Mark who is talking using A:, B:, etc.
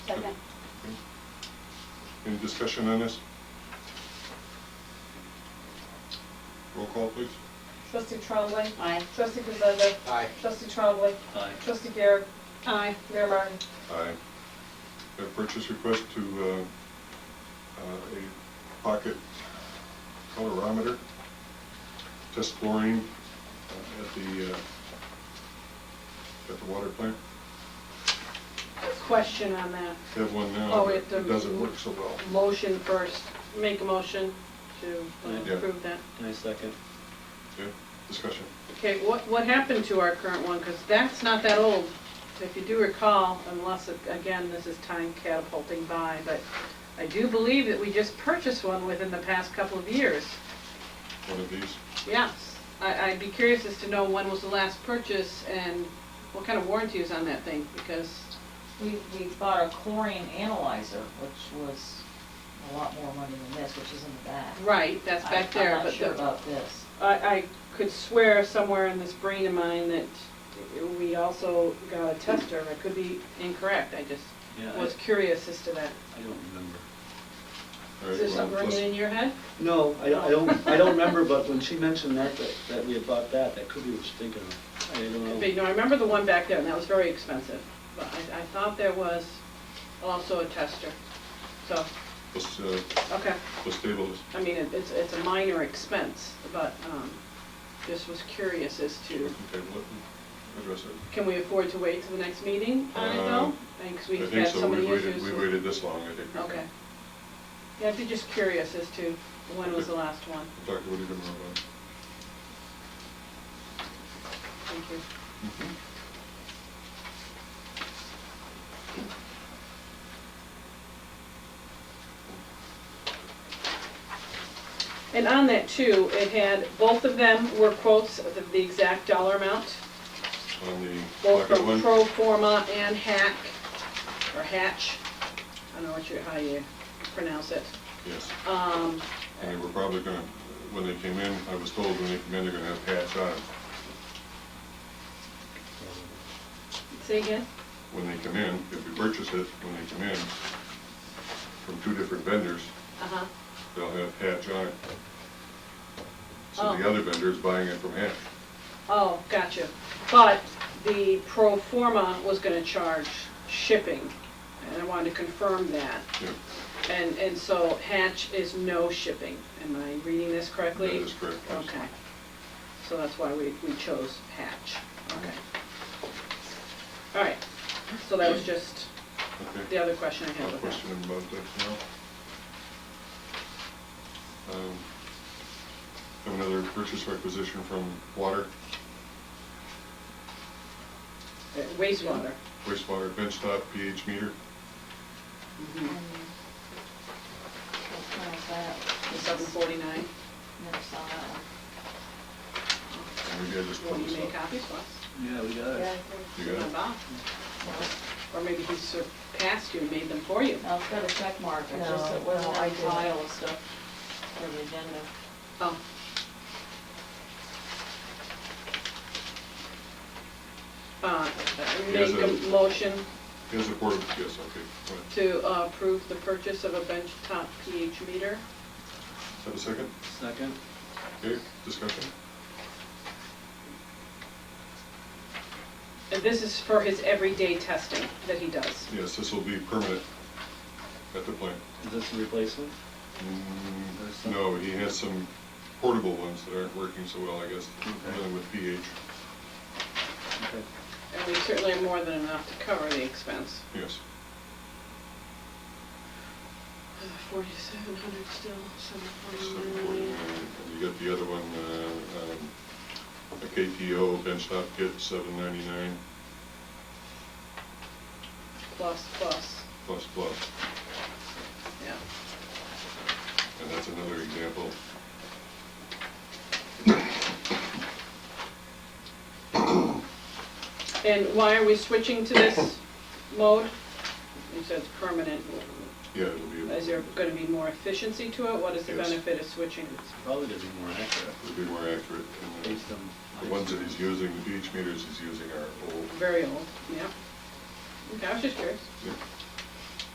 A: Okay.
B: Any discussion on this? Roll call, please.
C: Trustee Trombley.
A: Aye.
C: Trustee Gisenda.
D: Aye.
C: Trustee Trombley.
E: Aye.
C: Trustee Garrett.
A: Aye.
C: Mayor Martin.
B: Aye. A purchase request to, uh, uh, a pocket colorimeter, test chlorine uh, at the, uh, at the water plant.
F: Question on that.
B: They have one now,
F: Oh,
B: but
F: we have to-
B: it doesn't work so well.
F: Motion first, make a motion to
B: Yeah.
F: uh, approve that.
E: I second.
B: Okay, discussion.
F: Okay, what, what happened to our current one? Because that's not that old. If you do recall, unless, it- again, this is time catapulting by, but I do believe that we just purchased one within the past couple of years.
B: One of these.
F: Yes. I, I'd be curious as to know when was the last purchase and what kind of warranty is on that thing, because
A: We, we bought a chlorine analyzer, which was a lot more money than this, which is in the back.
F: Right, that's
A: I-
F: back there,
A: I'm not
F: but
A: sure
F: the-
A: about this.
F: I, I could swear somewhere in this brain of mine that we also got a tester. I could be incorrect, I just
E: Yeah, I-
F: was curious as to that.
E: I don't remember.
B: All right,
F: Is there
B: well,
F: something
B: let's-
F: ringing in your head?
E: No, I don't- I don't, I don't remember, but when she mentioned that, that- that we had bought that, that could be what she's thinking of. I
F: Could
E: don't
F: be,
E: know.
F: no, I remember the one back there, and that was very expensive. But I, I thought there was also a tester. So,
B: Let's, uh,
F: okay,
B: let's table this.
F: I mean, it- it's, it's a minor expense, but, um, just was curious as
B: We
F: to,
B: can table it and address it.
F: can we afford to wait till the next meeting on it
B: Uh,
F: though? I think 'cause
B: I
F: we've
B: think
F: had
B: so,
F: so many
B: we waited,
F: issues.
B: we waited this long, I think. we can.
F: Okay. Yeah, I'd be just curious as to when was the last one.
B: Dr. Woody, do you remember?
F: Thank you. Mm-hmm. And on that too, it had, both of them were quotes of the- the exact dollar amount,
B: On the
F: both
B: pocket
F: from
B: one?
F: Pro Forma and Hack, or Hatch. I don't know what you, how you pronounce it.
B: Yes,
F: Um,
B: and they were probably gonna, when they came in, I was told when they came in, they're gonna have hats on.
F: say again?
B: When they come in, if we purchase it, when they come in, from two different vendors,
F: Uh-huh.
B: they'll have hats on. So the
F: Oh.
B: other vendor is buying it from Hatch.
F: Oh, gotcha. But the pro forma was gonna charge shipping, and I wanted to confirm that.
B: Yeah,
F: And, and so Hatch is no shipping. Am I reading this
B: That
F: correctly?
B: is correct. yes.
F: Okay. So that's why we, we chose Hatch. Okay. All right. So that was just
B: Okay.
F: the other question I had
B: No
F: with that.
B: question about that now. Um, Have another purchase requisition from water,
F: Uh, Wastewater.
B: wastewater bench top pH meter.
A: And
F: Mhm.
A: What kind of
F: The
A: that?
F: seven forty-nine.
A: Never saw that one.
B: And maybe I just
F: Will
B: pulled
F: you
B: this
F: make
B: up.
F: copies for us?
E: Yeah, we got
A: Yeah,
E: it.
B: You got it?
F: Bob? Or maybe he surpassed you and made them for you.
A: no, it's got a check mark, it's just, it
G: No,
A: wasn't
G: no, I
A: on
G: didn't.
A: pile of stuff for the agenda.
F: Oh, uh,
B: Yes,
F: make a
B: uh,
F: motion
B: Yes, a board, yes, okay. Go ahead.
F: to uh, approve the purchase of a benchtop pH meter.
B: Is that a second?
E: Second?
B: Okay, discussion?
F: And this is for his everyday testing that he does.
B: Yes, this will be permanent at the plant.
E: Is this a replacement?
B: Mm, No, he has some portable ones that aren't working so well, I guess,
E: Okay.
B: dealing with pH.
E: Okay.
F: And we certainly have more than enough to cover the expense.
B: Yes.
F: Forty-seven hundred still,
B: So,
F: seven
B: uh,
F: forty-nine.
B: and You got the other one, uh, um, a KTO benchtop kit, seven ninety-nine
F: Plus, plus,
B: plus plus.
F: yeah.
B: And that's another example.
F: And why are we switching to this mode? You said it's permanent.
B: Yeah, it'll be,
F: Is there
B: it'll
F: going to be more efficiency to it? What is the
B: Yes.
F: benefit of switching?
E: Probably gonna be more accurate
B: be more accurate. and, uh,
E: based on.
B: The ones that he's using, the pH meters he's using are old.
F: Very old, yeah. Okay, I was just curious.
B: Yeah.